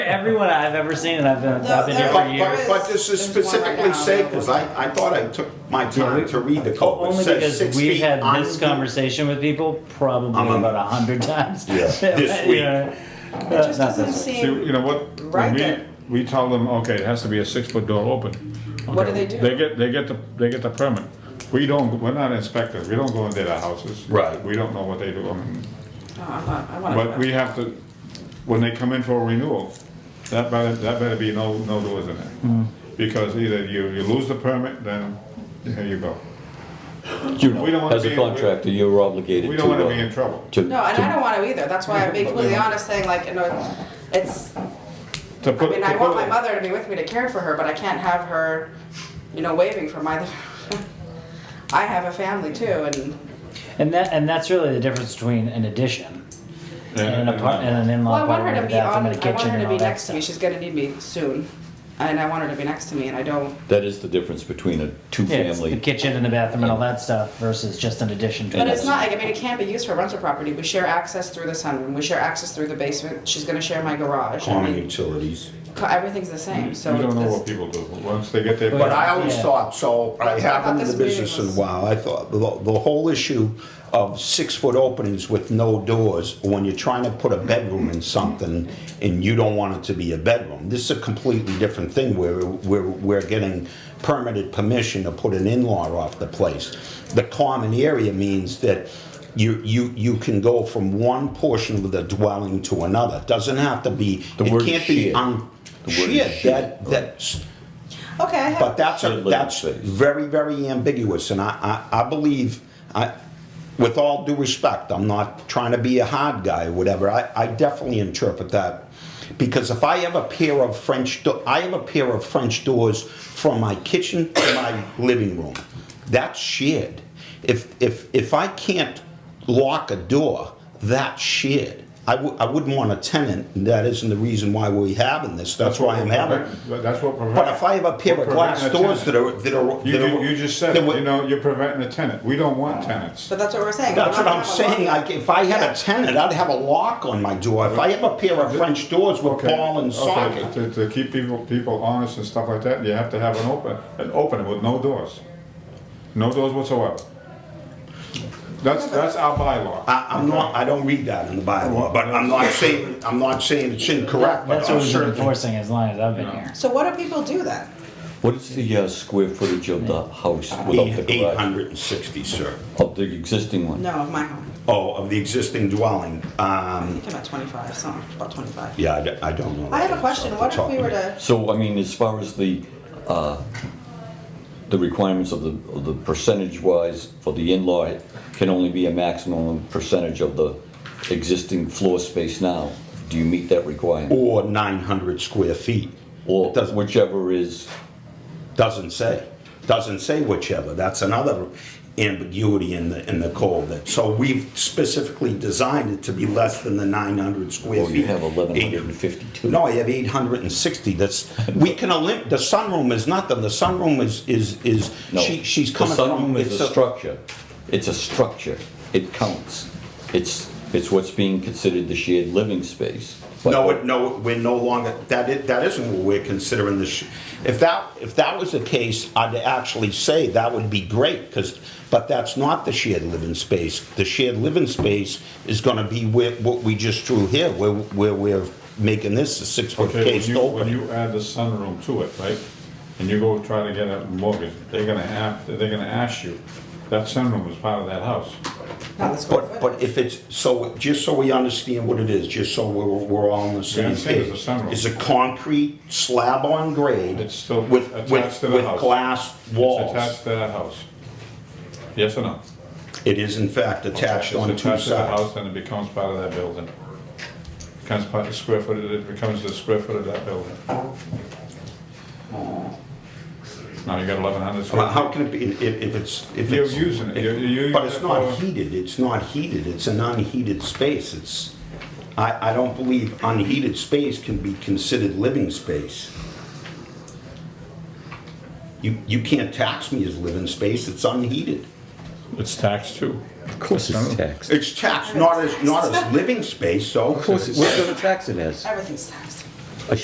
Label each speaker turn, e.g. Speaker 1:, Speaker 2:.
Speaker 1: everyone I've ever seen, and I've been, I've been here for
Speaker 2: But,
Speaker 1: years.
Speaker 2: but, but this is
Speaker 3: There's one right
Speaker 2: specifically
Speaker 3: now.
Speaker 2: said, because I, I thought I took my
Speaker 1: Yeah,
Speaker 2: time
Speaker 1: we-
Speaker 2: to read the code. It
Speaker 1: Only
Speaker 2: says six
Speaker 1: because we've
Speaker 2: feet
Speaker 1: had
Speaker 2: on.
Speaker 1: this conversation with people
Speaker 2: I'm
Speaker 1: probably
Speaker 2: on-
Speaker 1: about a hundred times.
Speaker 2: Yeah, this
Speaker 1: You
Speaker 2: week.
Speaker 1: know,
Speaker 3: It
Speaker 1: uh,
Speaker 3: just
Speaker 1: not
Speaker 3: doesn't
Speaker 1: this week.
Speaker 3: seem.
Speaker 4: See, you know what, when
Speaker 3: Right
Speaker 4: we,
Speaker 3: then.
Speaker 4: we tell them, okay, it has to be a six-foot door open.
Speaker 3: What do they
Speaker 4: Okay,
Speaker 3: do?
Speaker 4: They get, they get the, they get the permit. We don't, we're not inspectors, we don't go into their houses.
Speaker 2: Right.
Speaker 4: We don't know what they do, I mean,
Speaker 3: Oh, I'm not- I wanna-
Speaker 4: but we have to, when they come in for a renewal, that better, that better be no, no doors in
Speaker 5: Mm.
Speaker 4: it. Because either you, you lose the permit, then here you go.
Speaker 5: You
Speaker 4: We don't
Speaker 5: know,
Speaker 4: wanna
Speaker 5: as
Speaker 4: be-
Speaker 5: a contractor, you're obligated to.
Speaker 4: We don't wanna
Speaker 5: uh,
Speaker 4: be in trouble.
Speaker 5: to-
Speaker 3: No, and
Speaker 5: to-
Speaker 3: I don't want to either. That's why I'm being
Speaker 4: But
Speaker 3: completely
Speaker 4: then-
Speaker 3: honest, saying like, you know, it's.
Speaker 4: To
Speaker 3: I
Speaker 4: put-
Speaker 3: mean,
Speaker 4: to
Speaker 3: I want
Speaker 4: put-
Speaker 3: my mother to be with me to care for her, but I can't have her, you know, waving from my. I have a family too, and
Speaker 1: And that, and that's really the difference between an addition and an apartment, and an
Speaker 3: well,
Speaker 1: in-law
Speaker 3: I want her
Speaker 1: apartment,
Speaker 3: to
Speaker 1: with a
Speaker 3: be on.
Speaker 1: bathroom and a
Speaker 3: I want
Speaker 1: kitchen
Speaker 3: her
Speaker 1: and
Speaker 3: to be
Speaker 1: all that
Speaker 3: next to me.
Speaker 1: stuff.
Speaker 3: She's gonna need me soon, and I want her to be next to me, and I don't.
Speaker 5: That is the difference between a
Speaker 1: Yeah, it's the
Speaker 5: two-family.
Speaker 1: kitchen and the bathroom and all that stuff versus just an addition to.
Speaker 3: But
Speaker 1: it.
Speaker 3: it's not, I mean, it can't be used for rental property. We share access through the sunroom. We share access through the basement. She's gonna share my garage. I
Speaker 2: Common
Speaker 3: mean,
Speaker 2: utilities.
Speaker 3: co- everything's the same, so.
Speaker 4: You don't know
Speaker 3: it's-
Speaker 4: what people do, once they get their.
Speaker 2: But I always
Speaker 1: Yeah.
Speaker 2: thought, so I
Speaker 3: That's what I
Speaker 2: haven't
Speaker 3: thought
Speaker 2: been in the
Speaker 3: this meeting
Speaker 2: business in a
Speaker 3: was.
Speaker 2: while, I thought, the, the whole issue of six-foot openings with no doors, when you're trying to put a bedroom in something and you don't want it to be a bedroom, this is a completely different thing where we're, we're getting permitted permission to put an in-law off the place. The common area means that you, you, you can go from one portion of the dwelling to another. Doesn't have to be,
Speaker 5: The
Speaker 2: it
Speaker 5: word
Speaker 2: can't be
Speaker 5: shared.
Speaker 2: un,
Speaker 5: The word
Speaker 2: shared,
Speaker 5: shared,
Speaker 2: that,
Speaker 5: right.
Speaker 2: that's,
Speaker 3: Okay, I have.
Speaker 2: but that's, a-
Speaker 5: Shared living
Speaker 2: that's
Speaker 5: space.
Speaker 2: very, very ambiguous, and I, I, I believe, I, with all due respect, I'm not trying to be a hard guy or whatever, I, I definitely interpret that. Because if I have a pair of French, do- I have a pair of French doors from my kitchen to my living room, that's shared. If, if, if I can't lock a door, that's shared. I w- I wouldn't want a tenant, and that isn't the reason why we're having this, that's why I'm having.
Speaker 4: But That's what prevents.
Speaker 2: But if I have a pair of glass doors that are, that are.
Speaker 4: You,
Speaker 2: that
Speaker 4: ju-
Speaker 2: are-
Speaker 4: you just said,
Speaker 2: that were-
Speaker 4: you know, you're preventing a tenant. We don't want tenants.
Speaker 3: But that's what we're saying.
Speaker 2: That's
Speaker 3: We're
Speaker 2: what
Speaker 3: not
Speaker 2: I'm
Speaker 3: gonna have a
Speaker 2: saying,
Speaker 3: lot.
Speaker 2: like, if I had a tenant, I'd have a lock on my door. If I have a pair of French doors with
Speaker 4: Okay,
Speaker 2: ball and
Speaker 4: okay,
Speaker 2: socket.
Speaker 4: To, to keep people, people honest and stuff like that, you have to have an open, an opening with no doors. No doors whatsoever. That's, that's our bylaw.
Speaker 2: I, I'm not, I don't read that in the bylaw, but I'm not saying, I'm not saying it's incorrect, but
Speaker 1: That's what
Speaker 2: I'm
Speaker 1: we've been
Speaker 2: certain.
Speaker 1: enforcing as long as I've been here.
Speaker 3: So what do people do then?
Speaker 5: What is the uh, square footage of the house without the
Speaker 2: Eight
Speaker 5: garage?
Speaker 2: hundred and sixty, sir.
Speaker 5: Of the existing one?
Speaker 3: No, of my home.
Speaker 2: Oh, of the existing dwelling,
Speaker 3: I
Speaker 2: um,
Speaker 3: think about twenty-five, something, about twenty-five.
Speaker 2: yeah, I d- I don't know.
Speaker 3: I have a question. What if we were to,
Speaker 5: So, I mean, as far as the, uh, the requirements of the, of the percentage-wise for the in-law, it can only be a maximum percentage of the existing floor space now. Do you meet that requirement?
Speaker 2: Or nine hundred square feet.
Speaker 5: Or
Speaker 2: It doesn't-
Speaker 5: whichever is,
Speaker 2: Doesn't say. Doesn't say whichever. That's another ambiguity in the, in the code. That- So we've specifically designed it to be less than the 900 square
Speaker 5: or
Speaker 2: feet.
Speaker 5: you have eleven hundred and
Speaker 2: 800.
Speaker 5: fifty-two?
Speaker 2: No, I have 860. That's, we can elim, the sunroom is nothing. The sunroom is, is, is,
Speaker 5: No.
Speaker 2: she, she's coming from.
Speaker 5: The sunroom
Speaker 2: it's
Speaker 5: is a structure. It's a structure. It counts. It's, it's what's being considered the shared living space. But-
Speaker 2: No, it- no, we're no longer, that is, that isn't what we're considering this. sh- If that, if that was the case, I'd actually say that would be great, because, but that's not the shared living space. The shared living space is gonna be where, what we just drew here, where, where we're making this a six-foot
Speaker 4: Okay, when
Speaker 2: case
Speaker 4: you, when
Speaker 2: open.
Speaker 4: you add the sunroom to it, right? And you go try to get a mortgage, they're gonna have, they're gonna ask you, that sunroom was part of that house.
Speaker 3: not the square
Speaker 2: But, but
Speaker 3: footage.
Speaker 2: if it's, so, just so we understand what it is, just so we're, we're all on the same
Speaker 4: understand
Speaker 2: page.
Speaker 4: it's a sunroom.
Speaker 2: It's a concrete slab on grade.
Speaker 4: It's still
Speaker 2: with- with-
Speaker 4: attached to the
Speaker 2: With
Speaker 4: house.
Speaker 2: glass
Speaker 4: It's
Speaker 2: walls.
Speaker 4: attached to that house. Yes or no?
Speaker 2: It is in fact attached on
Speaker 4: It's
Speaker 2: two
Speaker 4: attached to the house,
Speaker 2: sides.
Speaker 4: Then it becomes part of that building. Becomes part of the square foot, it becomes the square foot of that building. Now you got eleven hundred
Speaker 2: Well,
Speaker 4: square.
Speaker 2: How
Speaker 4: feet.
Speaker 2: can it be, if if it's, if
Speaker 4: You're
Speaker 2: it's.
Speaker 4: using it. You're- you're using
Speaker 2: But it's
Speaker 4: it
Speaker 2: not
Speaker 4: for-
Speaker 2: heated, it's not heated, it's an unheated space, it's, I, I don't believe unheated space can be considered living space. You, you can't tax me as living space, it's unheated.
Speaker 4: It's taxed too.
Speaker 5: Of course it's taxed.
Speaker 2: It's taxed, not as, not as living space, so.
Speaker 5: Of course, it's- what kind of tax it is?
Speaker 3: Everything's taxed.